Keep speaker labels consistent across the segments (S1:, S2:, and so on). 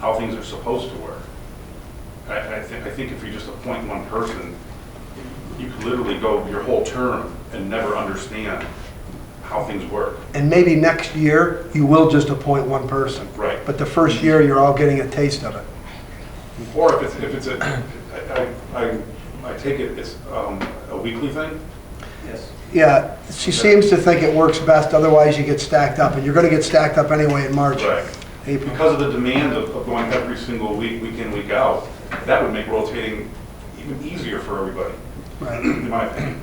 S1: how things are supposed to work. I, I think, I think if you just appoint one person, you could literally go your whole term and never understand how things work.
S2: And maybe next year, you will just appoint one person.
S1: Right.
S2: But the first year, you're all getting a taste of it.
S1: Or if it's, if it's a, I- I, I, I take it it's um, a weekly thing?
S3: Yes.
S2: Yeah, she seems to think it works best, otherwise you get stacked up, and you're gonna get stacked up anyway in March. April.
S1: Because of the demand of of going every single week, week in, week out, that would make rotating even easier for everybody,
S2: Right.
S1: in my opinion.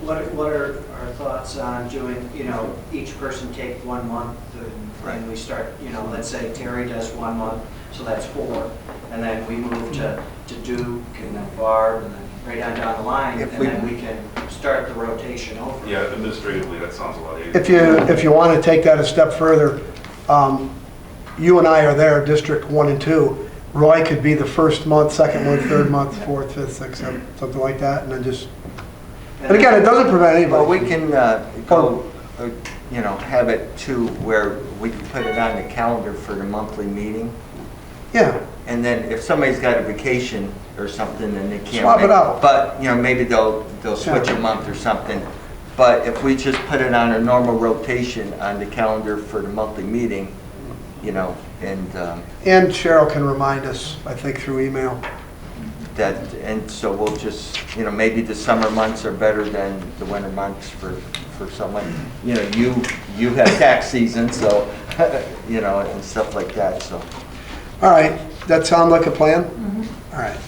S3: What are, what are our thoughts on doing, you know, each person take one month and-
S2: Right.
S3: and we start, you know, let's say Terry does one month, so that's four. And then we move to, to Duke and then Barb and then right on down the line.
S2: If
S3: And
S2: we-
S3: then we can start the rotation over.
S1: Yeah, administratively, that sounds a lot easier.
S2: If you, if you want to take that a step further, um, you and I are there, District 1 and 2. Roy could be the first month, second month, third month, fourth, fifth, sixth, seventh, something like that, and then just, and again, it doesn't prevent
S4: Well, we
S2: anybody.
S4: can uh, go, uh, you know, have it to where we can put it on the calendar for the monthly meeting.
S2: Yeah,
S4: And then if somebody's got a vacation or something and they can't.
S2: Swap it
S4: make-
S2: out.
S4: But, you know, maybe they'll, they'll switch
S2: Yeah.
S4: a month or something. But if we just put it on a normal rotation on the calendar for the monthly meeting, you know, and um,
S2: and Cheryl can remind us, I think, through email.
S4: that, and so we'll just, you know, maybe the summer months are better than the winter months for, for someone. You know, you, you have tax season, so, you know, and stuff like that, so.
S2: All right, that sound like a plan? All right.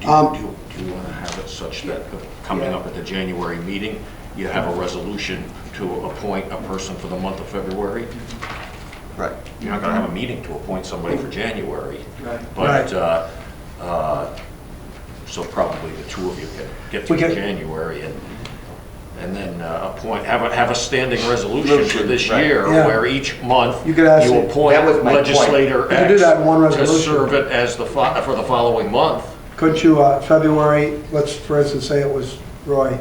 S5: Do
S2: Um,
S5: you, do you want to have it such that coming up at the January meeting, you have a resolution to appoint a person for the month of February?
S4: Right.
S5: You're not going to have a meeting to appoint somebody for January.
S3: Right.
S5: But,
S2: Right.
S5: uh, uh, so probably the two of you can get
S2: We
S5: through
S2: can-
S5: January and, and then uh, appoint, have a, have a standing resolution for this
S4: Resolution, right.
S5: year
S2: Yeah.
S5: where each month
S2: You could ask it.
S5: you appoint
S4: That was my point.
S5: legislator
S2: You could do
S5: X
S2: that in one
S5: To
S2: resolution.
S5: serve it as the, fo- for the following month.
S2: Could you, uh, February, let's, for instance, say it was Roy,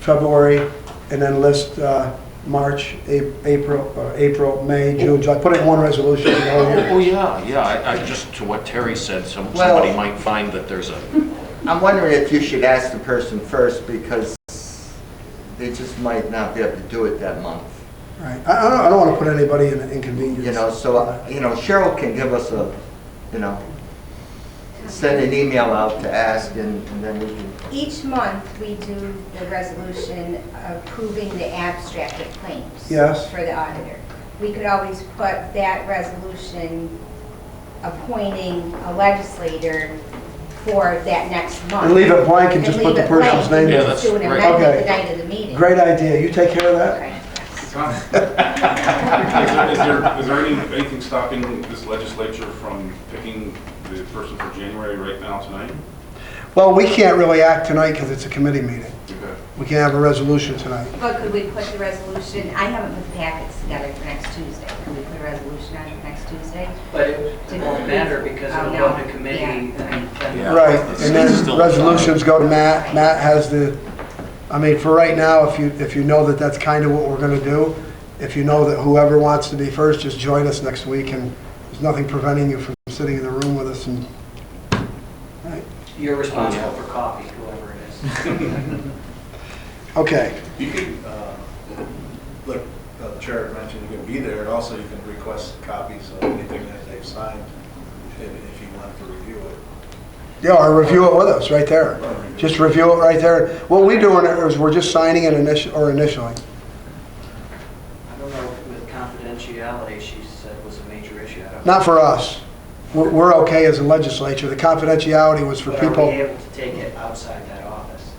S2: February, and then list uh, March, A- April, uh, April, May, June, July, put it in one resolution. the whole
S5: Oh,
S2: year.
S5: oh, yeah, yeah, I, I just, to what Terry said, some,
S4: Well-
S5: somebody might find that there's a,
S4: I'm wondering if you should ask the person first, because they just might not be able to do it that month.
S2: Right, I I don't, I don't want to put anybody in an inconvenience.
S4: You know, so, uh, you know, Cheryl can give us a, you know, send an email out to ask, and and then we can
S6: Each month, we do the resolution approving the abstract of claims.
S2: Yes.
S6: For the auditor. We could always put that resolution appointing a legislator for that next month.
S2: And leave it blank and just put the
S6: leave it blank
S2: person's name
S5: in. Yeah,
S6: and
S5: that's
S6: Do an
S5: right.
S6: amendment
S2: Okay.
S6: the night of the meeting.
S2: Great idea, you take care of that?
S6: Okay.
S1: Tom, Is there- is there, is there any- anything stopping this legislature from picking the person for January right now tonight?
S2: Well, we can't really act tonight because it's a committee meeting.
S1: Okay.
S2: We can't have a resolution tonight.
S6: But could we put the resolution, I haven't put the packets together for next Tuesday. Could we put a resolution on for next Tuesday?
S3: But it it won't matter because
S6: Oh,
S3: it'll
S6: no.
S3: go to committee and then.
S5: Yeah.
S2: Right,
S5: It's-
S2: and
S5: it's
S2: then
S5: still-
S2: resolutions go to Matt, Matt has the, I mean, for right now, if you, if you know that that's kind of what we're gonna do, if you know that whoever wants to be first, just join us next week, and there's nothing preventing you from sitting in the room with us and, right,
S3: You're responsible for coffee, whoever it is.
S2: okay,
S7: You could, uh, like uh, the Chair had mentioned, you can be there, and also you can request copies of anything that they've signed, if if you wanted to review it.
S2: yeah, or review it with us, right there, just review it right there. What we're doing is, we're just signing it initial, or initially,
S3: I don't know if with confidentiality, she said was a major issue. I don't know.
S2: not for us, we're, we're okay as a legislature, the confidentiality was for
S3: But
S2: people.
S3: Are we able to take it outside that office?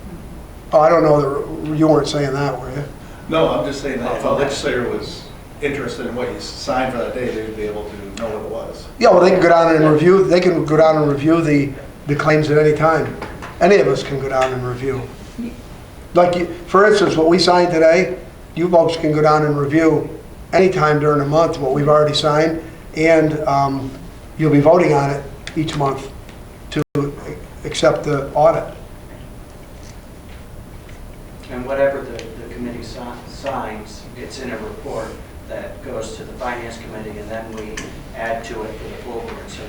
S2: Oh, I don't know, that you weren't saying that, were you?
S7: No, I'm just saying that if a legislator was interested in what you signed for that day, they'd be able to know what it was.
S2: Yeah, well, they can go down and review, they can go down and review the, the claims at any time. Any of us can go down and review. Like, you- for instance, what we signed today, you folks can go down and review anytime during the month what we've already signed, and um, you'll be voting on it each month to accept the audit.
S3: And whatever the, the committee si- signs, it's in a report that goes to the finance committee, and then we add to it for the full board. So